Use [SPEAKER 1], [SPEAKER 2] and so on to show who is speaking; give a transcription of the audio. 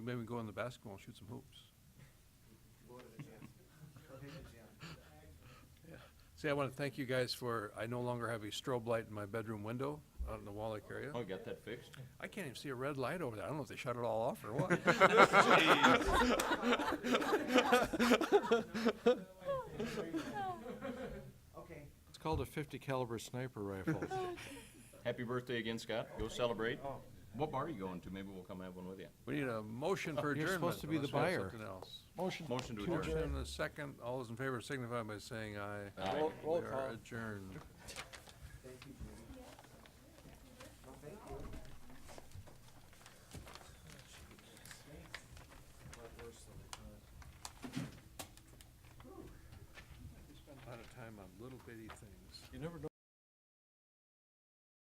[SPEAKER 1] Maybe we can go on the basketball and shoot some hoops.
[SPEAKER 2] Go to the gym. Go hit the gym.
[SPEAKER 1] See, I want to thank you guys for, I no longer have a strobe light in my bedroom window out in the Wallack area.
[SPEAKER 3] Oh, got that fixed?
[SPEAKER 1] I can't even see a red light over there. I don't know if they shut it all off or what.
[SPEAKER 2] Okay,
[SPEAKER 4] It's called a fifty caliber sniper rifle.
[SPEAKER 3] Happy birthday again, Scott. Go celebrate. What bar are you going to? Maybe we'll come have one with you.
[SPEAKER 1] We need a motion for adjournment.
[SPEAKER 4] You're supposed to be
[SPEAKER 1] unless
[SPEAKER 4] the
[SPEAKER 1] we have
[SPEAKER 4] buyer.
[SPEAKER 1] Something else.
[SPEAKER 4] Motion
[SPEAKER 3] Motion to adjourn.
[SPEAKER 1] Motion and a second. All those in favor signify by saying aye.
[SPEAKER 3] Aye. Roll-
[SPEAKER 1] We are adjourned.
[SPEAKER 2] thank you, Judy. No, thank you.
[SPEAKER 1] A lot of time on little bitty things.
[SPEAKER 4] You never know